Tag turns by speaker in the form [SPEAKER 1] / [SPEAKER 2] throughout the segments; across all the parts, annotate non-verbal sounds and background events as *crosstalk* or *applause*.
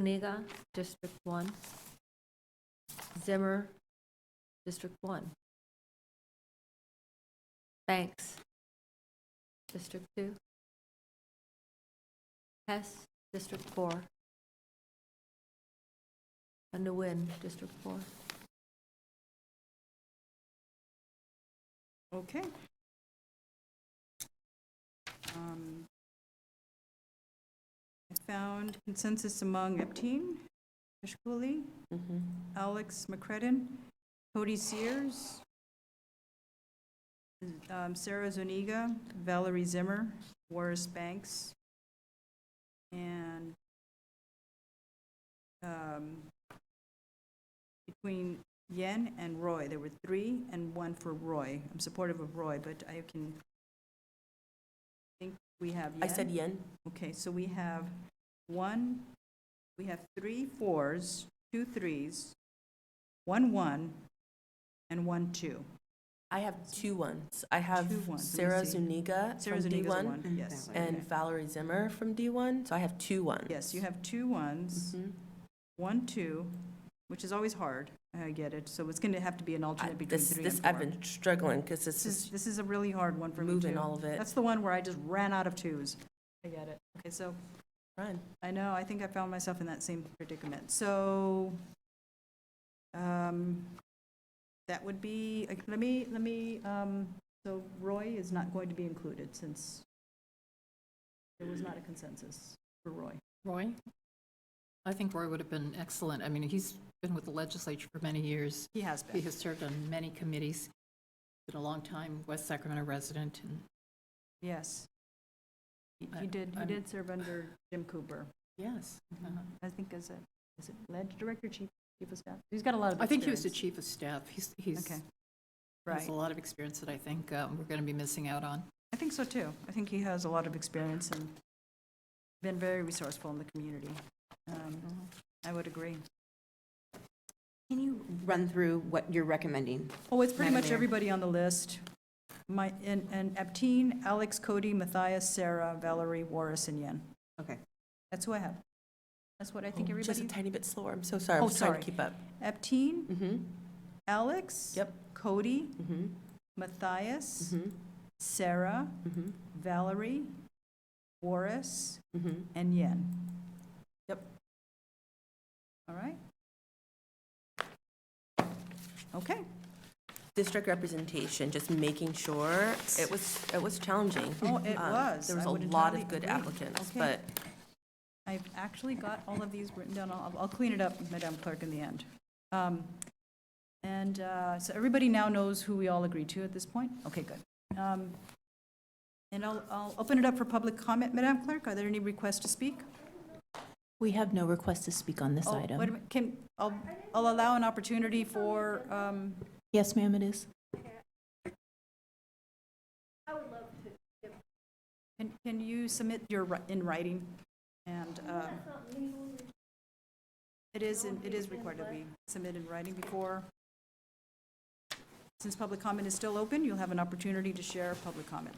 [SPEAKER 1] Kuniga, District 1. Zimmer, District 1. Banks, District 2. Hess, District 4. And Nguyen, District 4.
[SPEAKER 2] Okay. Um, I found consensus among Epteen, Ashkuli,
[SPEAKER 3] Mm-hmm.
[SPEAKER 2] Alex McCredden, Cody Sears, um, Sarah Zuniga, Valerie Zimmer, Warris Banks, and um, between Yen and Roy. There were three and one for Roy. I'm supportive of Roy, but I can think we have Yen.
[SPEAKER 3] I said yen.
[SPEAKER 2] Okay, so we have one, we have three fours, two threes, one one, and one two.
[SPEAKER 3] I have two ones. I have
[SPEAKER 2] Two ones, let me
[SPEAKER 3] Sarah
[SPEAKER 2] see.
[SPEAKER 3] Zuniga from
[SPEAKER 2] Sarah Zuniga's a
[SPEAKER 3] D1
[SPEAKER 2] one, yes. okay.
[SPEAKER 3] and Valerie Zimmer from D1, so I have two ones.
[SPEAKER 2] Yes, you have two ones,
[SPEAKER 3] Mhm.
[SPEAKER 2] one, two, which is always hard, I get it, so it's gonna have to be an
[SPEAKER 3] I-
[SPEAKER 2] alternate between
[SPEAKER 3] This,
[SPEAKER 2] three and
[SPEAKER 3] this,
[SPEAKER 2] four.
[SPEAKER 3] I've been struggling because this
[SPEAKER 2] This is,
[SPEAKER 3] is
[SPEAKER 2] this is a really hard one for me
[SPEAKER 3] moving
[SPEAKER 2] too.
[SPEAKER 3] all of it.
[SPEAKER 2] That's the one where I just ran out of twos. I get it. Okay, so
[SPEAKER 3] Run.
[SPEAKER 2] I know, I think I found myself in that same predicament. So, um, that would be, like, let me, let me, um, so Roy is not going to be included since there was not a consensus for Roy.
[SPEAKER 4] Roy? I think Roy would have been excellent. I mean, he's been with the legislature for many years.
[SPEAKER 2] He has
[SPEAKER 4] He
[SPEAKER 2] been.
[SPEAKER 4] has served on many committees, been a long time West Sacramento resident, and
[SPEAKER 2] Yes. He- He
[SPEAKER 4] I-
[SPEAKER 2] did, he
[SPEAKER 4] I'm-
[SPEAKER 2] did serve under Jim Cooper,
[SPEAKER 4] yes. uh,
[SPEAKER 2] I think as a, is it ledge director, chief, chief of staff? He's got a lot of
[SPEAKER 4] I think he was the
[SPEAKER 2] experience.
[SPEAKER 4] chief of staff. He's, he's,
[SPEAKER 2] Okay,
[SPEAKER 4] has
[SPEAKER 2] right.
[SPEAKER 4] a lot of experience that I think um, we're going to be missing out on.
[SPEAKER 2] I think so too. I think he has a lot of experience and been very resourceful in the community. Um, I would agree.
[SPEAKER 5] Mm-hmm. Can you run through what you're recommending?
[SPEAKER 2] Oh, it's pretty
[SPEAKER 5] Madam
[SPEAKER 2] much
[SPEAKER 5] Mayor.
[SPEAKER 2] everybody on the list. My, and, and Apteen, Alex, Cody, Matthias, Sarah, Valerie, Warris, and Yen.
[SPEAKER 5] Okay. Oh,
[SPEAKER 2] That's who I have. That's what I think
[SPEAKER 3] Just a
[SPEAKER 2] everybody,
[SPEAKER 3] tiny bit slower. I'm so sorry. I'm
[SPEAKER 2] Oh,
[SPEAKER 3] just trying
[SPEAKER 2] sorry.
[SPEAKER 3] to keep up.
[SPEAKER 2] Apteen,
[SPEAKER 3] Mm-hmm,
[SPEAKER 2] Alex.
[SPEAKER 3] Yep.
[SPEAKER 2] Cody,
[SPEAKER 3] mm-hmm,
[SPEAKER 2] Matthias,
[SPEAKER 3] mm-hmm,
[SPEAKER 2] Sarah,
[SPEAKER 3] mm-hmm,
[SPEAKER 2] Valerie, Warris,
[SPEAKER 3] mm-hmm.
[SPEAKER 2] and Yen.
[SPEAKER 3] Yep.
[SPEAKER 2] All right. Okay.
[SPEAKER 3] District representation, just making sure. It was, it was challenging.
[SPEAKER 2] Oh, it
[SPEAKER 3] Um,
[SPEAKER 2] was.
[SPEAKER 3] There was
[SPEAKER 2] I
[SPEAKER 3] a
[SPEAKER 2] would
[SPEAKER 3] lot
[SPEAKER 2] entirely
[SPEAKER 3] of good
[SPEAKER 2] agree.
[SPEAKER 3] applicants,
[SPEAKER 2] Okay.
[SPEAKER 3] but
[SPEAKER 2] I've actually got all of these written down. I'll, I'll clean it up, Madam Clerk, in the end. Um, And uh, so everybody now knows who we all agreed to at this point? Okay, good. Um, And I'll, I'll open it up for public comment, Madam Clerk. Are there any requests to speak?
[SPEAKER 6] We have no request to speak on this
[SPEAKER 2] Oh, wait a
[SPEAKER 6] item.
[SPEAKER 2] minute. Can, I'll, I'll allow an opportunity for, um,
[SPEAKER 6] Yes, ma'am, it is.
[SPEAKER 2] can, can you submit your, ri- in writing? And uh, it is, in- it is required that we submit in writing before. Since public comment is still open, you'll have an opportunity to share public comment.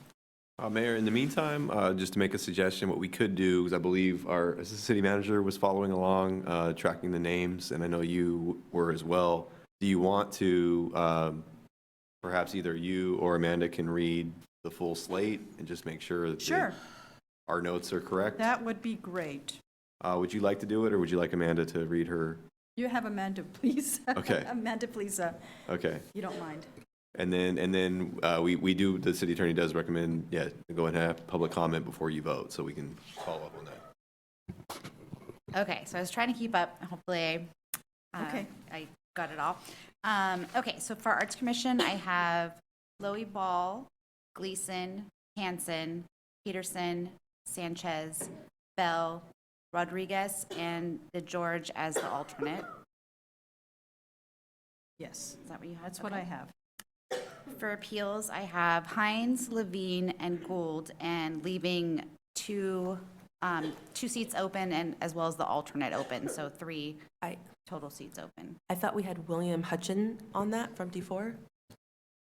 [SPEAKER 7] Uh, Mayor, in the meantime, uh, just to make a suggestion, what we could do, is I believe our assistant city manager was following along, uh, tracking the names, and I know you were as well. Do you want to, um, perhaps either you or Amanda can read the full slate and just make sure that the-
[SPEAKER 2] Sure,
[SPEAKER 7] our notes are correct?
[SPEAKER 2] that would be great.
[SPEAKER 7] Uh, Would you like to do it, or would you like Amanda to read her?
[SPEAKER 2] You have Amanda, *laughs* please.
[SPEAKER 7] Okay.
[SPEAKER 2] Amanda, please, uh,
[SPEAKER 7] Okay.
[SPEAKER 2] you don't mind.
[SPEAKER 7] And then, and then uh, we we do, the city attorney does recommend, yeah, go ahead and have public comment before you vote, so we can follow up on that.
[SPEAKER 8] Okay, so I was trying to keep up. Hopefully, I,
[SPEAKER 2] Okay.
[SPEAKER 8] uh, I got it all. Um, okay, so for Arts Commission, I have Loey Ball, Gleason, Hanson, Peterson, Sanchez, Bell, Rodriguez, and the George as the alternate.
[SPEAKER 2] Yes,
[SPEAKER 8] Is that what you have?
[SPEAKER 2] that's what I have.
[SPEAKER 8] For appeals, I have Hines, Levine, and Gould, and leaving two, um, two seats open and as well as the alternate open, so three
[SPEAKER 3] I,
[SPEAKER 8] total seats open.
[SPEAKER 3] I thought we had William Hutchin on that from D4.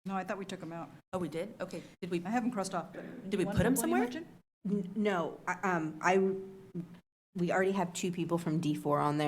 [SPEAKER 2] No, I thought we took them out.
[SPEAKER 3] Oh, we did? Okay. Did we,
[SPEAKER 2] I have them crossed off. but-
[SPEAKER 3] did we
[SPEAKER 2] One
[SPEAKER 3] put
[SPEAKER 2] from
[SPEAKER 3] him
[SPEAKER 2] William
[SPEAKER 3] somewhere?
[SPEAKER 2] Hutchin?
[SPEAKER 5] N- No, I- um, I we already have two people from D4 on there.